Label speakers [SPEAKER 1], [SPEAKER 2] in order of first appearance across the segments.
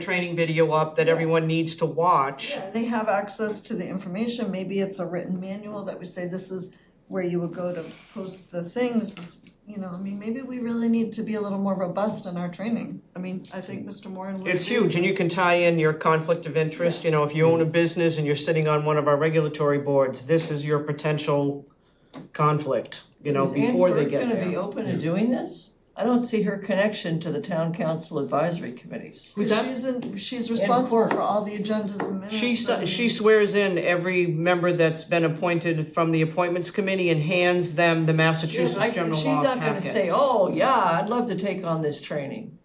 [SPEAKER 1] training video up that everyone needs to watch.
[SPEAKER 2] Yeah, they have access to the information, maybe it's a written manual that would say this is where you would go to post the thing, this is, you know, I mean, maybe we really need to be a little more robust in our training. I mean, I think Mr. Moran would.
[SPEAKER 1] It's
[SPEAKER 2] agree.
[SPEAKER 1] huge, and you can tie in your conflict of interest, you know, if you own a business and you're sitting on one of our regulatory boards, this is your potential conflict, you know, before they get
[SPEAKER 3] Is Ann Burke gonna be
[SPEAKER 1] there.
[SPEAKER 3] open to doing this? I don't see her connection to the town council advisory committees.
[SPEAKER 1] Who's that?
[SPEAKER 2] She's in, she's responsible
[SPEAKER 3] court.
[SPEAKER 2] for all the agendas and minutes.
[SPEAKER 1] She,
[SPEAKER 2] I mean,
[SPEAKER 1] s- she swears in every member that's been appointed from the appointments committee and hands them the Massachusetts
[SPEAKER 3] Like,
[SPEAKER 1] general
[SPEAKER 3] She's
[SPEAKER 1] law
[SPEAKER 3] not gonna
[SPEAKER 1] packet.
[SPEAKER 3] say, oh, yeah, I'd love to take on this training.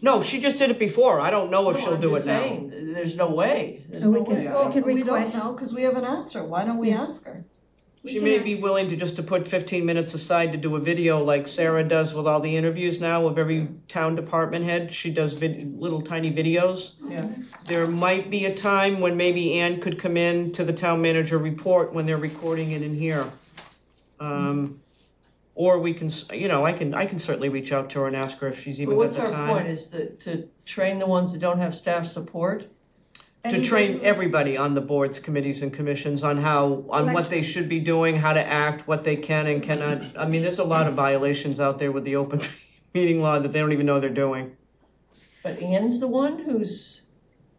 [SPEAKER 1] No, she just did it before, I don't know if
[SPEAKER 3] No,
[SPEAKER 1] she'll
[SPEAKER 3] I'm
[SPEAKER 1] do it
[SPEAKER 3] just
[SPEAKER 1] now.
[SPEAKER 3] saying, th- There's no way, there's
[SPEAKER 4] And
[SPEAKER 3] no
[SPEAKER 4] Oh, we can-
[SPEAKER 3] way.
[SPEAKER 4] Yeah.
[SPEAKER 2] Well,
[SPEAKER 4] could
[SPEAKER 2] we don't
[SPEAKER 4] request-
[SPEAKER 2] know, cause we haven't asked her, why don't we ask her?
[SPEAKER 4] We
[SPEAKER 1] She
[SPEAKER 4] can
[SPEAKER 1] may
[SPEAKER 4] ask-
[SPEAKER 1] be willing to just to put fifteen minutes aside to do a video like Sarah does with all the interviews now of every town department head, she does vid- little tiny videos.
[SPEAKER 3] Yeah.
[SPEAKER 1] There might be a time when maybe Ann could come in to the town manager report when they're recording it in here. Um, or we can, s- you know, I can, I can certainly reach out to her and ask her if she's
[SPEAKER 3] But
[SPEAKER 1] even got
[SPEAKER 3] what's
[SPEAKER 1] the
[SPEAKER 3] our point,
[SPEAKER 1] time.
[SPEAKER 3] is that to train the ones that don't have staff support?
[SPEAKER 1] To
[SPEAKER 2] Anybody
[SPEAKER 1] train
[SPEAKER 2] who's-
[SPEAKER 1] everybody on the boards, committees and commissions on how, on what
[SPEAKER 2] Elect-
[SPEAKER 1] they should be doing, how to act, what they can and cannot. I mean, there's a lot of violations out there with the open meeting law that they don't even know they're doing.
[SPEAKER 3] But Ann's the one who's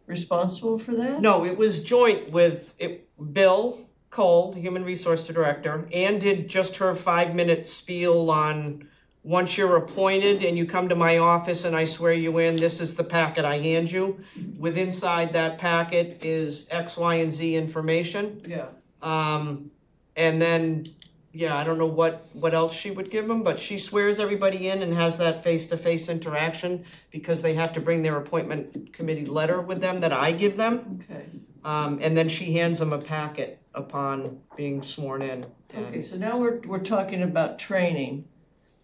[SPEAKER 3] responsible for that?
[SPEAKER 1] No, it was joint with it, Bill Cole, the Human Resource Director, and did just her five minute spiel on once you're appointed and you come to my office and I swear you in, this is the packet I hand you. With inside that packet is X, Y, and Z information.
[SPEAKER 3] Yeah,
[SPEAKER 1] Um, and then, yeah, I don't know what, what else she would give them, but she swears everybody in and has that face-to-face interaction because they have to bring their appointment committee letter with them that I give them.
[SPEAKER 3] okay.
[SPEAKER 1] Um, and then she hands him a packet upon being sworn in.
[SPEAKER 3] Okay, so now we're, we're talking about training.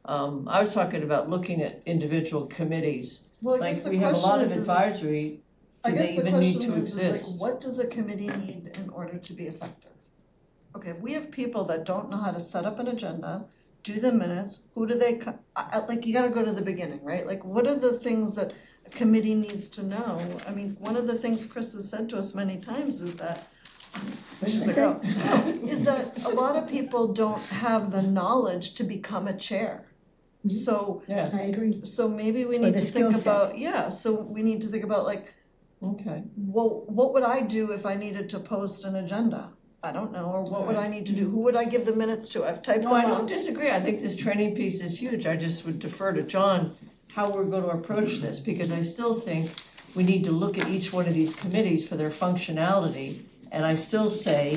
[SPEAKER 3] Um, I was talking about looking at individual committees.
[SPEAKER 2] Well, I
[SPEAKER 3] Like,
[SPEAKER 2] guess the
[SPEAKER 3] we have a lot
[SPEAKER 2] question
[SPEAKER 3] of
[SPEAKER 2] is, is,
[SPEAKER 3] advisory,
[SPEAKER 2] I
[SPEAKER 3] do they
[SPEAKER 2] guess the
[SPEAKER 3] even need
[SPEAKER 2] question
[SPEAKER 3] to
[SPEAKER 2] is, is
[SPEAKER 3] exist?
[SPEAKER 2] like, what does a committee need in order to be effective? Okay, if we have people that don't know how to set up an agenda, do the minutes, who do they, co- I, I- like, you gotta go to the beginning, right? Like, what are the things that a committee needs to know? I mean, one of the things Chris has said to us many times is that, she's like, oh, no, is that a lot of people don't have the knowledge to become a chair. So,
[SPEAKER 3] Yes,
[SPEAKER 4] I agree.
[SPEAKER 2] so maybe we
[SPEAKER 4] Mm-hmm. Or
[SPEAKER 2] need
[SPEAKER 4] the
[SPEAKER 2] to think
[SPEAKER 4] skill set.
[SPEAKER 2] about, yeah, so we need to think about like,
[SPEAKER 3] okay.
[SPEAKER 2] well, what would I do if I needed to post an agenda? I don't know, or what would I need to do? Who would I give the minutes to? I've typed them
[SPEAKER 3] No, I don't
[SPEAKER 2] out.
[SPEAKER 3] disagree, I think this training piece is huge, I just would defer to John how we're gonna approach this, because I still think we need to look at each one of these committees for their functionality, and I still say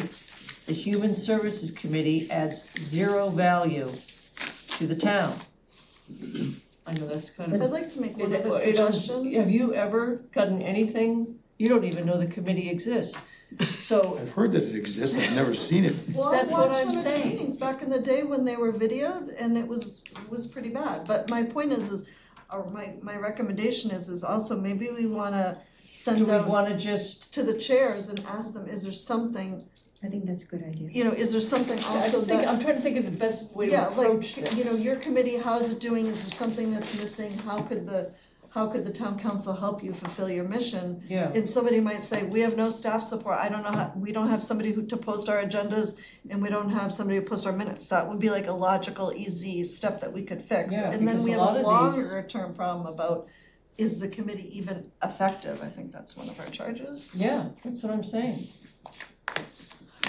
[SPEAKER 3] the Human Services Committee adds zero value to the town. I know that's kind of.
[SPEAKER 2] I'd like to make one
[SPEAKER 3] It-
[SPEAKER 2] other
[SPEAKER 3] it does-
[SPEAKER 2] suggestion.
[SPEAKER 3] Have you ever gotten anything, you don't even know the committee exists, so
[SPEAKER 5] I've heard that it exists, I've never seen it.
[SPEAKER 2] Well, I
[SPEAKER 3] That's what
[SPEAKER 2] watched
[SPEAKER 3] I'm
[SPEAKER 2] some of the
[SPEAKER 3] saying.
[SPEAKER 2] meetings back in the day when they were videoed and it was, was pretty bad. But my point is, is, or my, my recommendation is, is also maybe we wanna
[SPEAKER 3] do
[SPEAKER 2] send
[SPEAKER 3] we
[SPEAKER 2] out
[SPEAKER 3] wanna just,
[SPEAKER 2] to the chairs and ask them, is there something,
[SPEAKER 4] I think that's a good idea.
[SPEAKER 2] you know, is there something also that?
[SPEAKER 3] I just think, I'm trying to think of the best way to
[SPEAKER 2] Yeah,
[SPEAKER 3] approach
[SPEAKER 2] like,
[SPEAKER 3] this.
[SPEAKER 2] you know, your committee, how's it doing, is there something that's missing, how could the, how could the town council help you fulfill your mission?
[SPEAKER 3] Yeah.
[SPEAKER 2] And somebody might say, we have no staff support, I don't know how, we don't have somebody who to post our agendas, and we don't have somebody to post our minutes, that would be like a logical, easy step that we could fix.
[SPEAKER 3] Yeah,
[SPEAKER 2] And then
[SPEAKER 3] because
[SPEAKER 2] we
[SPEAKER 3] a
[SPEAKER 2] have a
[SPEAKER 3] lot of these-
[SPEAKER 2] longer term problem about, is the committee even effective, I think that's one of our charges.
[SPEAKER 3] Yeah, that's what I'm saying.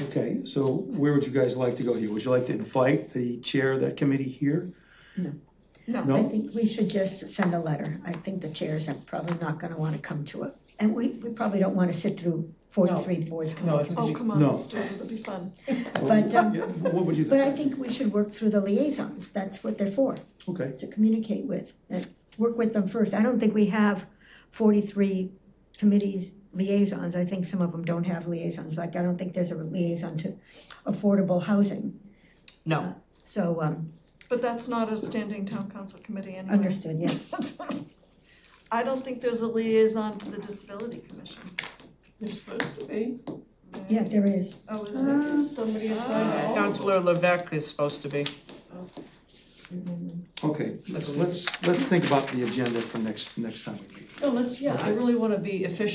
[SPEAKER 5] Okay, so where would you guys like to go here? Would you like to invite the chair of that committee here?
[SPEAKER 2] No,
[SPEAKER 4] I
[SPEAKER 5] No?
[SPEAKER 4] think we should just send a letter. I think the chairs are probably not gonna wanna come to it. And we, we probably don't wanna sit through forty-three boards.
[SPEAKER 3] No, it's-
[SPEAKER 2] oh, come on,
[SPEAKER 5] No.
[SPEAKER 2] let's do it, it'll be fun.
[SPEAKER 4] But, um,
[SPEAKER 5] Yeah, What would you
[SPEAKER 4] But I
[SPEAKER 5] think?
[SPEAKER 4] think we should work through the liaisons. That's what they're for,
[SPEAKER 5] Okay,
[SPEAKER 4] to communicate with, and work with them first. I don't think we have forty-three committees liaisons. I think some of them don't have liaisons. Like, I don't think there's a liaison to affordable housing.
[SPEAKER 1] No,
[SPEAKER 4] So, um,
[SPEAKER 2] But that's not a standing town council committee
[SPEAKER 3] Mm-hmm.
[SPEAKER 2] anyway.
[SPEAKER 4] understood, yeah.
[SPEAKER 2] I don't think there's a liaison to the disability commission.
[SPEAKER 3] You're supposed to be.
[SPEAKER 4] Yeah, there is.
[SPEAKER 2] Oh, is there?
[SPEAKER 3] Somebody assigned all.
[SPEAKER 1] Counselor Levesque is supposed to be.
[SPEAKER 5] Okay, let's, let's, let's think about the agenda for next, next time we meet.
[SPEAKER 3] No, let's, yeah, I really wanna be efficient